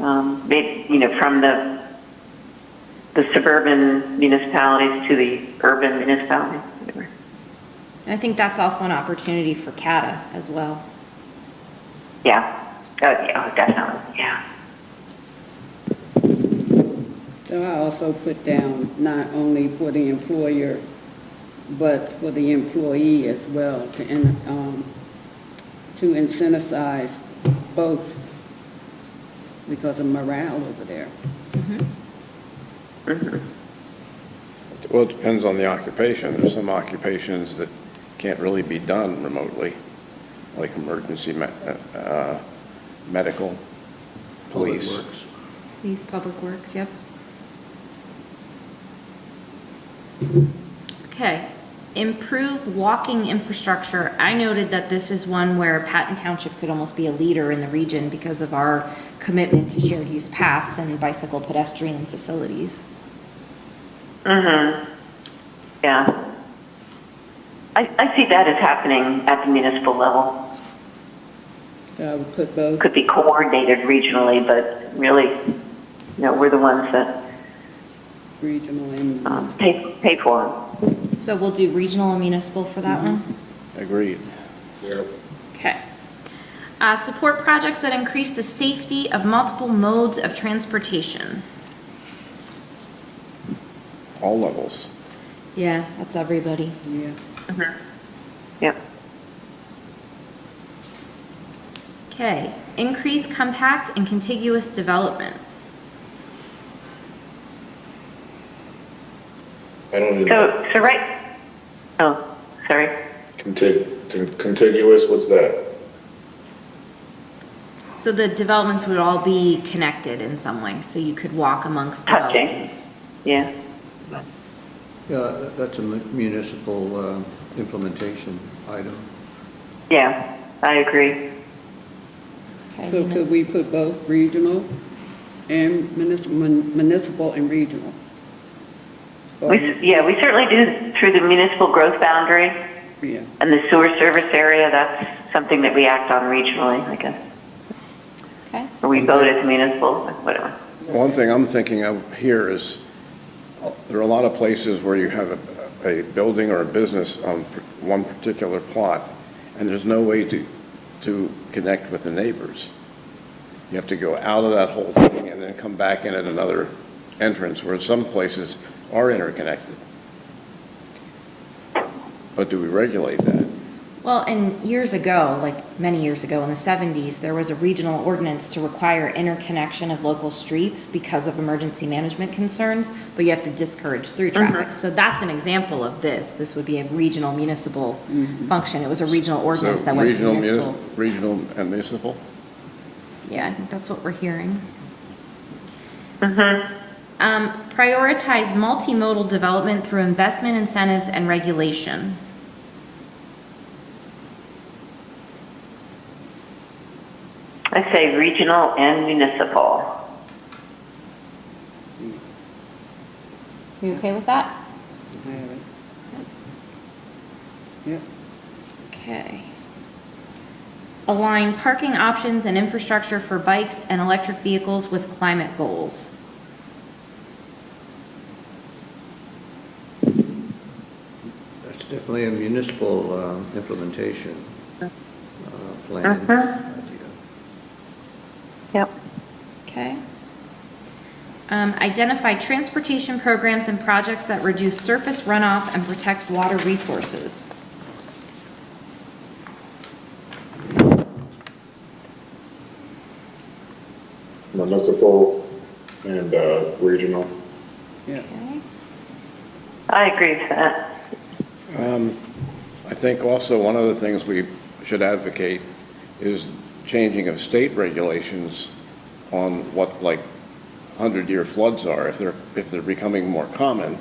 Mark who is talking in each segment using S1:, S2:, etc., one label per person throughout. S1: um, may- you know, from the, the suburban municipalities to the urban municipalities. whatever.
S2: I think that's also an opportunity for CATA as well.
S1: Yeah, oh, yeah, oh, definitely, yeah.
S3: So I also put down not only for the employer, but for the employee as well, to, in- um, to incentivize both because of morale over there.
S4: Well, it depends on the occupation. There's some occupations that can't really be done remotely, like emergency me- uh, uh, medical, police.
S2: Police, Public Works, yep. Okay, improve walking infrastructure. I noted that this is one where Patton Township could almost be a leader in the region because of our commitment to shared use paths and bicycle pedestrian facilities.
S1: Mm-hmm, yeah. I, I see that as happening at the municipal level.
S3: So I would put both,
S1: Could be coordinated regionally, but really, you know, we're the ones that
S3: regional and,
S1: um, pay, pay for them.
S2: So we'll do regional and municipal for that one?
S4: Agreed.
S2: Okay. Uh, Support projects that increase the safety of multiple modes of transportation.
S4: All levels.
S2: Yeah, that's everybody.
S3: yeah.
S1: Yep.
S2: Okay, increase compact and contiguous development.
S5: I don't even,
S1: So, so right, oh, sorry.
S5: contig, contiguous, what's that?
S2: So the developments would all be connected in some way, so you could walk amongst
S1: Touching.
S2: developments.
S1: Yeah,
S6: Yeah, that- that's a mu- municipal uh, implementation item.
S1: yeah, I agree.
S2: Okay,
S3: So
S2: muni-
S3: could we put both regional and municipal, municipal and regional?
S1: We, s- yeah, we certainly do through the municipal growth boundary
S3: Yeah,
S1: and the sewer service area, that's something that we act on regionally, I guess.
S2: Okay,
S1: Or we vote as municipal, whatever.
S4: One thing I'm thinking of here is, uh, there are a lot of places where you have a, a building or a business on p- one particular plot, and there's no way to, to connect with the neighbors. You have to go out of that whole thing and then come back in at another entrance, where some places are interconnected. But do we regulate that?
S2: well, and years ago, like many years ago in the 70s, there was a regional ordinance to require interconnection of local streets because of emergency management concerns, but you have to discourage through traffic. So that's an example of this. This would be a regional municipal function. It was a regional ordinance
S4: So
S2: that went to
S4: regional, muni-
S2: municipal.
S4: Regional and municipal?
S2: Yeah, I think that's what we're hearing. Um, prioritize multimodal development through investment incentives and regulation.
S1: I say regional and municipal.
S2: You okay with that?
S3: I have it. Yep.
S2: Okay. Align parking options and infrastructure for bikes and electric vehicles with climate goals.
S6: That's definitely a municipal um, implementation uh, plan idea.
S1: Yep.
S2: Okay. Um, identify transportation programs and projects that reduce surface runoff and protect water resources.
S5: Municipal and, uh, regional.
S3: Yeah.
S2: Okay.
S1: I agree with that.
S4: I think also one of the things we should advocate is changing of state regulations on what like 100-year floods are. If they're, if they're becoming more common,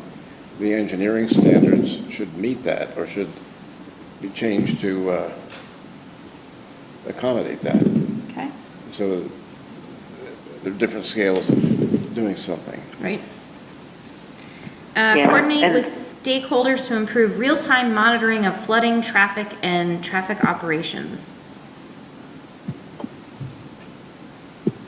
S4: the engineering standards should meet that or should be changed to uh, accommodate that.
S2: Okay,
S4: So uh, there are different scales of doing something.
S2: right? Uh,
S1: Yeah,
S2: Coordinate
S1: and-
S2: with stakeholders to improve real-time monitoring of flooding, traffic, and traffic operations.